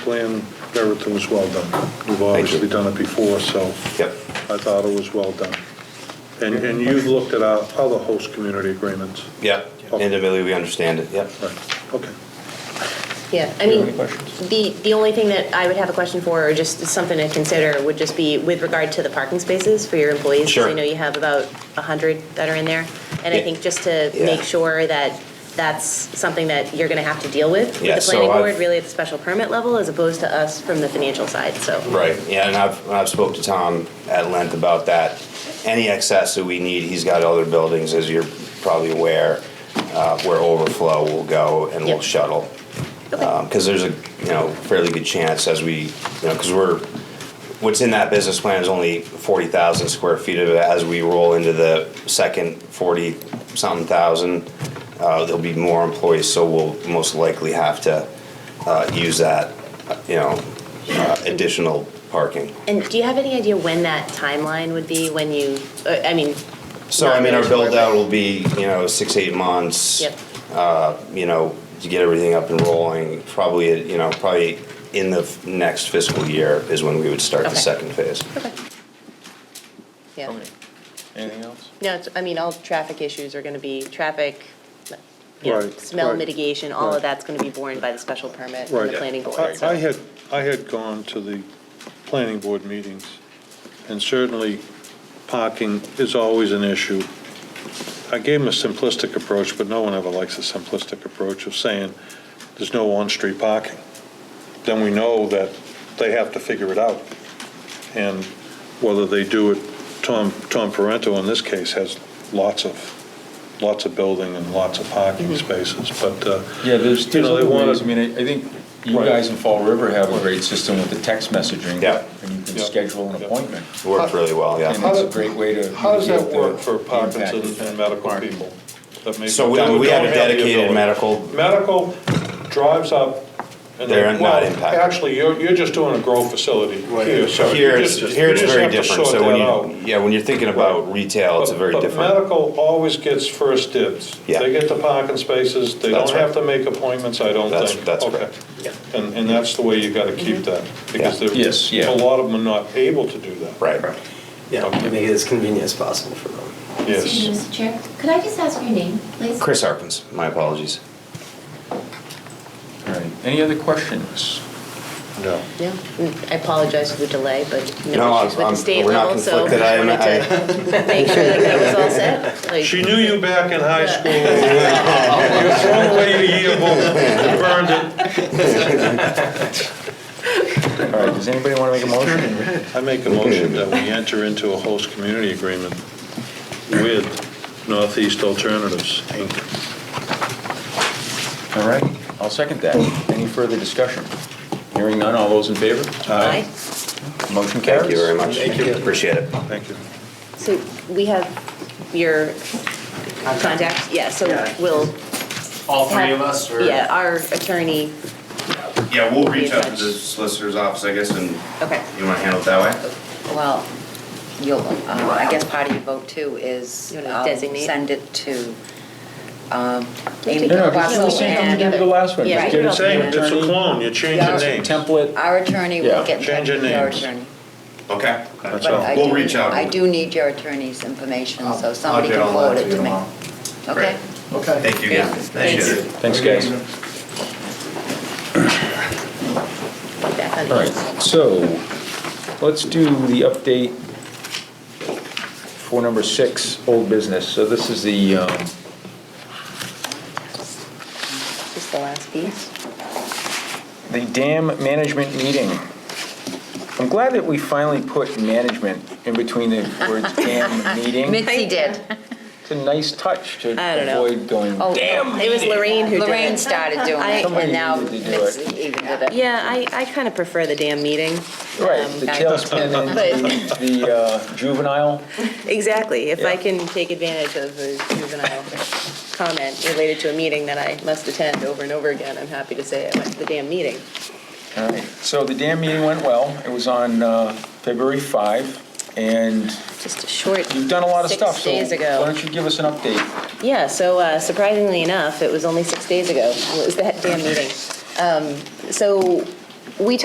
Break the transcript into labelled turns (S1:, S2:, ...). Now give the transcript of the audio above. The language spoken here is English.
S1: plan, everything was well done. You've obviously done it before, so
S2: Yep.
S1: I thought it was well done. And, and you've looked at our other host community agreements?
S2: Yeah, individually, we understand it, yeah.
S1: Right, okay.
S3: Yeah, I mean, the, the only thing that I would have a question for, or just something to consider, would just be with regard to the parking spaces for your employees. 'cause
S2: Sure.
S3: I know you have about 100 that are in there. And I
S2: Yeah.
S3: think just to
S2: Yeah.
S3: make sure that that's something that you're going to have to deal with with
S2: Yeah,
S3: the
S2: so
S3: planning
S2: I've-
S3: board, really at the special permit level, as opposed to us from the financial side, so.
S2: Right, yeah, and I've, I've spoke to Tom at length about that. Any excess that we need, he's got other buildings, as you're probably aware, uh, where overflow will go and we will
S3: Yep.
S2: shuttle. Because there's a, you know, fairly good chance as we, you know, because we're, what's in that business plan is only forty thousand square feet of it. As we roll into the second forty-something thousand, uh, there'll be more employees, so we'll most likely have to, uh, use that, uh, you know, uh, additional parking.
S3: And do you have any idea when that timeline would be, when you, uh, I mean,
S2: So, I mean, our build-out will be, you know, six, eight months.
S3: yep,
S2: you know, to get everything up and rolling, probably, you know, probably in the f- next fiscal year is when we would start the
S3: Okay.
S2: second phase.
S3: yeah.
S4: Anything else?
S3: No, it's, I mean, all traffic issues are gonna be traffic, you know,
S1: Right,
S3: smell
S1: right,
S3: mitigation, all
S1: right.
S3: of that's gonna be borne by the special permit and
S1: Right.
S3: the planning board,
S1: I
S3: so.
S1: I had, I had gone to the planning board meetings, and certainly parking is always an issue. I gave them a simplistic approach, but no one ever likes a simplistic approach of saying, there's no on-street parking. Then we know that they have to figure it out. And whether they do it, Tom, Tom Parento in this case has lots of, lots of building and lots of parking spaces, but, uh,
S4: Yeah, there's,
S1: You
S4: there's
S1: know, they
S4: other
S1: wanna-
S4: ways, I mean, I I think you
S1: Right.
S4: guys in Fall River have a great system with the text messaging.
S2: Yeah.
S4: And you can
S1: Yeah.
S4: schedule an
S1: Yeah.
S4: appointment.
S2: It worked really well,
S4: And
S2: yeah.
S4: it's a
S1: does-
S4: great way to.
S1: How does that
S4: mitigate the
S1: work for
S4: impact
S1: Parkinson's
S4: of
S1: and medical
S4: parking.
S1: people? that may-
S2: So we,
S1: that
S2: we have
S1: don't
S2: a
S1: the
S2: dedicated
S1: ability?
S2: medical,
S1: Medical drives up and they.
S2: They're not
S1: well,
S2: impacted.
S1: Actually, you're, you're just doing a grow facility here, so. you
S2: here it's,
S1: just-
S2: here
S1: you
S2: it's
S1: just
S2: very
S1: have to
S2: different.
S1: sort
S2: So when
S1: that out.
S2: you, yeah, when you're thinking about retail, it's a
S1: But-
S2: very
S1: But
S2: different.
S1: medical always gets first dibs.
S2: Yeah.
S1: They get the parking spaces, they don't
S2: That's
S1: have
S2: right.
S1: to make appointments, I don't
S2: That's-
S1: think.
S2: that's
S1: Okay.
S2: correct.
S1: And, and that's the way you gotta keep that, because there,
S4: Mm-hmm. Yes, yeah.
S1: a lot of them are not able to do that.
S2: Right.
S5: Yeah, make it as convenient as possible for them.
S1: Yes.
S6: Excuse
S4: Mm-hmm.
S6: me, Mr. Chair, could I just ask your name, please?
S2: Chris Harpins, my apologies.
S4: All right, any other questions?
S1: No.
S3: Yeah, mm, I apologize for the delay, but
S2: No,
S3: no issues with
S2: I'm-
S3: the state
S2: we're not
S3: level, so I
S2: conflicted. I am-
S3: wanted to make sure that that was all set. like-
S1: She knew you back in high
S3: Yeah.
S1: school. You threw away your yearbook, you burned
S4: All right, does anybody want to make a motion?
S1: it. I make a motion that we enter into a host community agreement with Northeast Alternatives, Inc.
S4: All right, I'll second that. Any further discussion? Hearing none, all those in favor?
S3: Aye.
S4: Motion carries.
S2: Thank you very much.
S5: Thank you.
S2: Appreciate it.
S1: Thank you.
S3: So we have your contact, yeah, so
S5: Yeah.
S3: we'll.
S5: All three
S3: have-
S5: of us, or?
S3: Yeah, our attorney,
S2: Yeah, we'll
S3: Be in reach out to touch. the
S2: solicitor's office, I guess, and
S7: Okay,
S2: you want to handle it that way?
S7: well, you'll, uh, I guess part of your vote too is
S3: You wanna
S7: um,
S3: designate?
S7: send it to
S4: No,
S7: um, Amy
S4: no, just-
S7: Buckle
S4: just same thing we did
S7: and
S4: with the last one.
S3: Yeah.
S4: Just get it
S1: It's
S4: to the
S1: a it's a
S4: attorney.
S1: clone, you change the name.
S4: Template.
S7: our attorney
S4: Yeah.
S7: will get in touch
S1: Change your
S7: with your
S1: names.
S7: attorney.
S2: Okay.
S1: That's
S7: But
S1: all.
S7: I
S2: We'll
S7: do-
S2: reach out.
S7: I do need your attorney's information, so
S5: I'll
S7: somebody
S5: get
S7: can
S5: on that
S7: forward
S5: to
S7: it
S5: you
S7: to me.
S5: tomorrow.
S7: Okay?
S5: Okay.
S2: Thank you again.
S7: Thanks.
S2: Appreciate it.
S4: Thanks, guys.
S3: back on.
S4: All right, so let's do the update for number six, old business. So this is the, um,
S3: Just the last piece.
S4: the dam management meeting. I'm glad that we finally put management in between the words dam meeting.
S7: Mitzi did.
S4: It's a nice touch to
S3: I don't know.
S4: avoid going,
S7: Oh,
S4: damn.
S3: It was Lorraine who did it.
S7: Lorraine started doing
S3: I-
S7: it,
S4: Somebody
S7: and now
S4: needed to do it.
S7: Mitzi even did it.
S3: Yeah, I, I kind of prefer the damn meeting. Um,
S4: Right, the
S7: I-
S4: tailspin and the uh, juvenile.
S3: Exactly, if I
S4: Yeah.
S3: can take advantage of a juvenile comment related to a meeting that I must attend over and over again, I'm happy to say I went to the damn meeting.
S4: All right, so the dam meeting went well. It was on uh, February 5, and
S3: Just a short.
S4: You've done a lot of stuff,
S3: Six
S4: so
S3: days
S4: why
S3: ago.
S4: don't you give us an update?
S3: Yeah, so uh, surprisingly enough, it was only six days ago, was that damn meeting. Um, So we